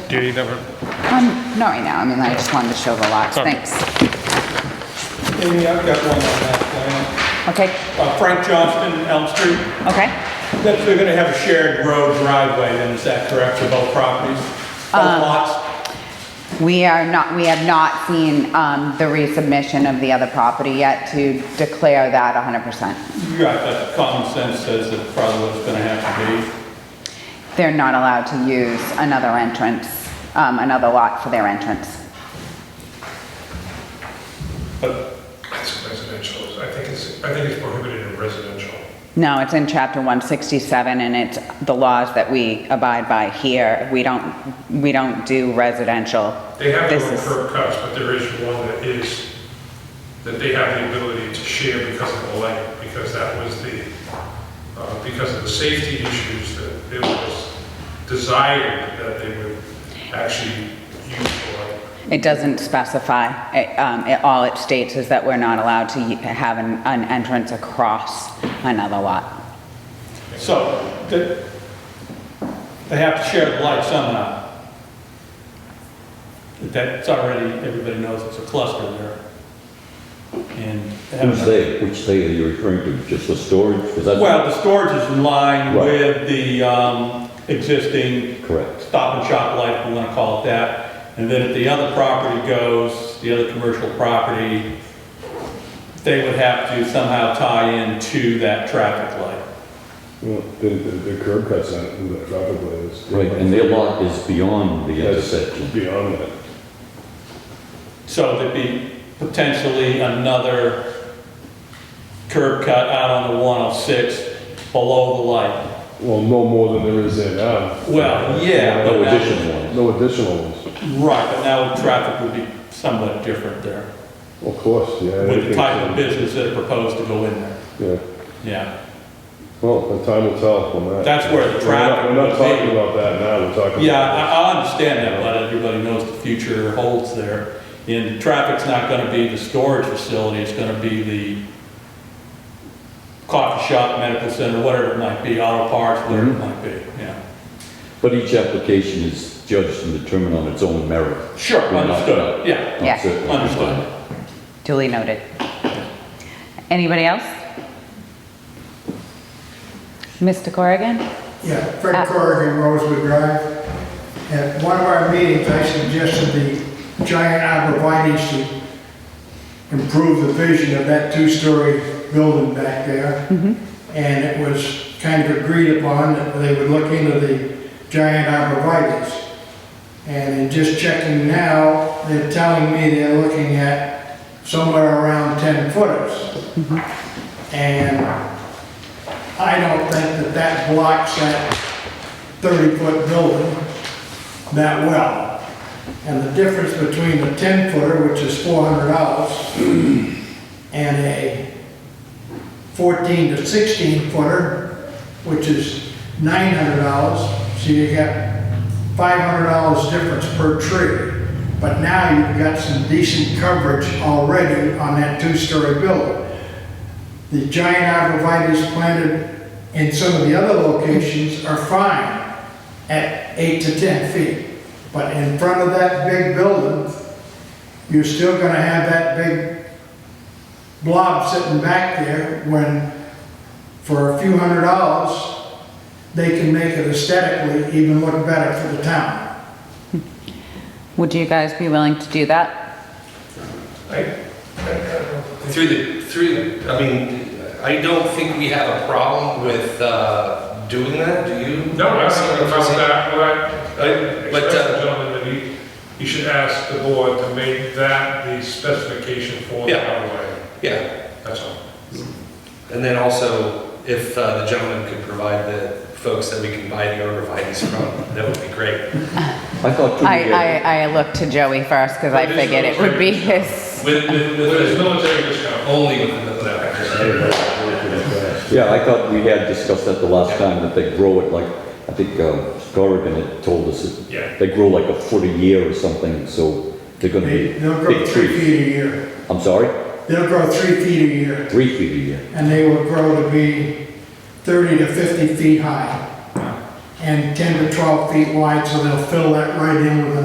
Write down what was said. Do you need number? Um, not right now, I mean, I just wanted to show the lots, Okay. thanks. Amy, I've got one on that Okay, plan. Uh, Frank Johnston, Elm Street, okay. that's, they're gonna have a shared road driveway then, is that correct, for both properties? Both lots? We are not, we have not seen, um, the resubmission of the other property yet to declare that hundred percent. Right, but common sense says that's probably what's gonna have to be. They're not allowed to use another entrance, um, another lot for their entrance. But, It's residential, I think it's, I think it's prohibited in residential. No, it's in chapter one sixty-seven and it's the laws that we abide by here. We don't, we don't do residential. They have This their own is curb cuts, but there is one that is, that they have the ability to share because of the light, because that was the, uh, because of the safety issues that it was desired that they would actually use the light. It doesn't specify, It, um, it- all it states is that we're not allowed to y- have an, an entrance across another lot. so, they, they have to share the light somehow. That's already, everybody knows it's a cluster there. And. they have- Which they, which they are you referring to, just the storage? 'Cause that's- Well, the storage is in line Right. with the um, existing Correct. stop and shop light, if we want to call it that. And then if the other property goes, the other commercial property, they would have to somehow tie into that traffic light. Well, the, the the curb cuts on who that traffic light is. Right, and their lot is beyond the That's intersection. Beyond that. So there'd be potentially another curb cut out on the 106 below the light. Well, no more than there is there now. Well, yeah. No but that- additional ones. No additional ones. Right, but now traffic would be somewhat different there. Of course, yeah. I with the think type of so. business that are proposed to go in there. Yeah. Yeah, Well, the time will tell on that. That's where the We're not- We're traffic not will be. talking about that now, we're talking. yeah, about- I, I understand that, but everybody knows the future holds there. And traffic's not gonna be the storage facility, it's gonna be the coffee shop, medical center, whatever it might be, auto parts, whatever Mm-hmm. it might be, yeah. But each application is judged and determined on its own merit. Sure, We're not- understood, yeah. not Yeah. certain. Understood. Duly noted. Anybody else? Mr. Corrigan? Yeah, Fred Corrigan, Rosewood Drive. At one of our meetings, I suggested the giant arborvitae's to improve the vision of that two-story building back there. And it was kind of agreed upon that they would look into the giant arborvitae's. And in just checking now, they're telling me they're looking at somewhere around 10 footers. And I don't think that that blocks that 30-foot building that well. And the difference between a 10-footer, which is $400, and a 14 to 16-footer, which is $900, so you got $500 difference per tree. But now you've got some decent coverage already on that two-story building the giant arborvitae's planted in some of the other locations are fine at eight to 10 feet. But in front of that big building, you're still gonna have that big blob sitting back there when, for a few hundred dollars, they can make it aesthetically even look better for the town. Would you guys be willing to do that? I- Through the, through, the- I mean, I don't think we have a problem with uh, doing that, do you? No, I think about that, what I, But, uh, expressed to the gentleman that he, he should ask the board to make that the specification for the Yeah. highway, Yeah, that's all. and then also, if uh, the gentleman could provide the folks that we can buy the arborvitae's from, that would be great. I thought too, I, yeah, I, I looked to Joey first because I But it is figured it would be his. With, with, But it's with, military discount. only with the military. yeah, I thought we had discussed that the last time, that they grow it like, I think um, Corrigan had told us, that Yeah. they grow like a foot a year or something, so they're gonna They- be They'll grow big three trees. feet a year. I'm sorry? They'll grow three feet a year, Three feet a year. and they will grow to be 30 to 50 feet high. and 10 to 12 feet wide, so they'll fill that right in with an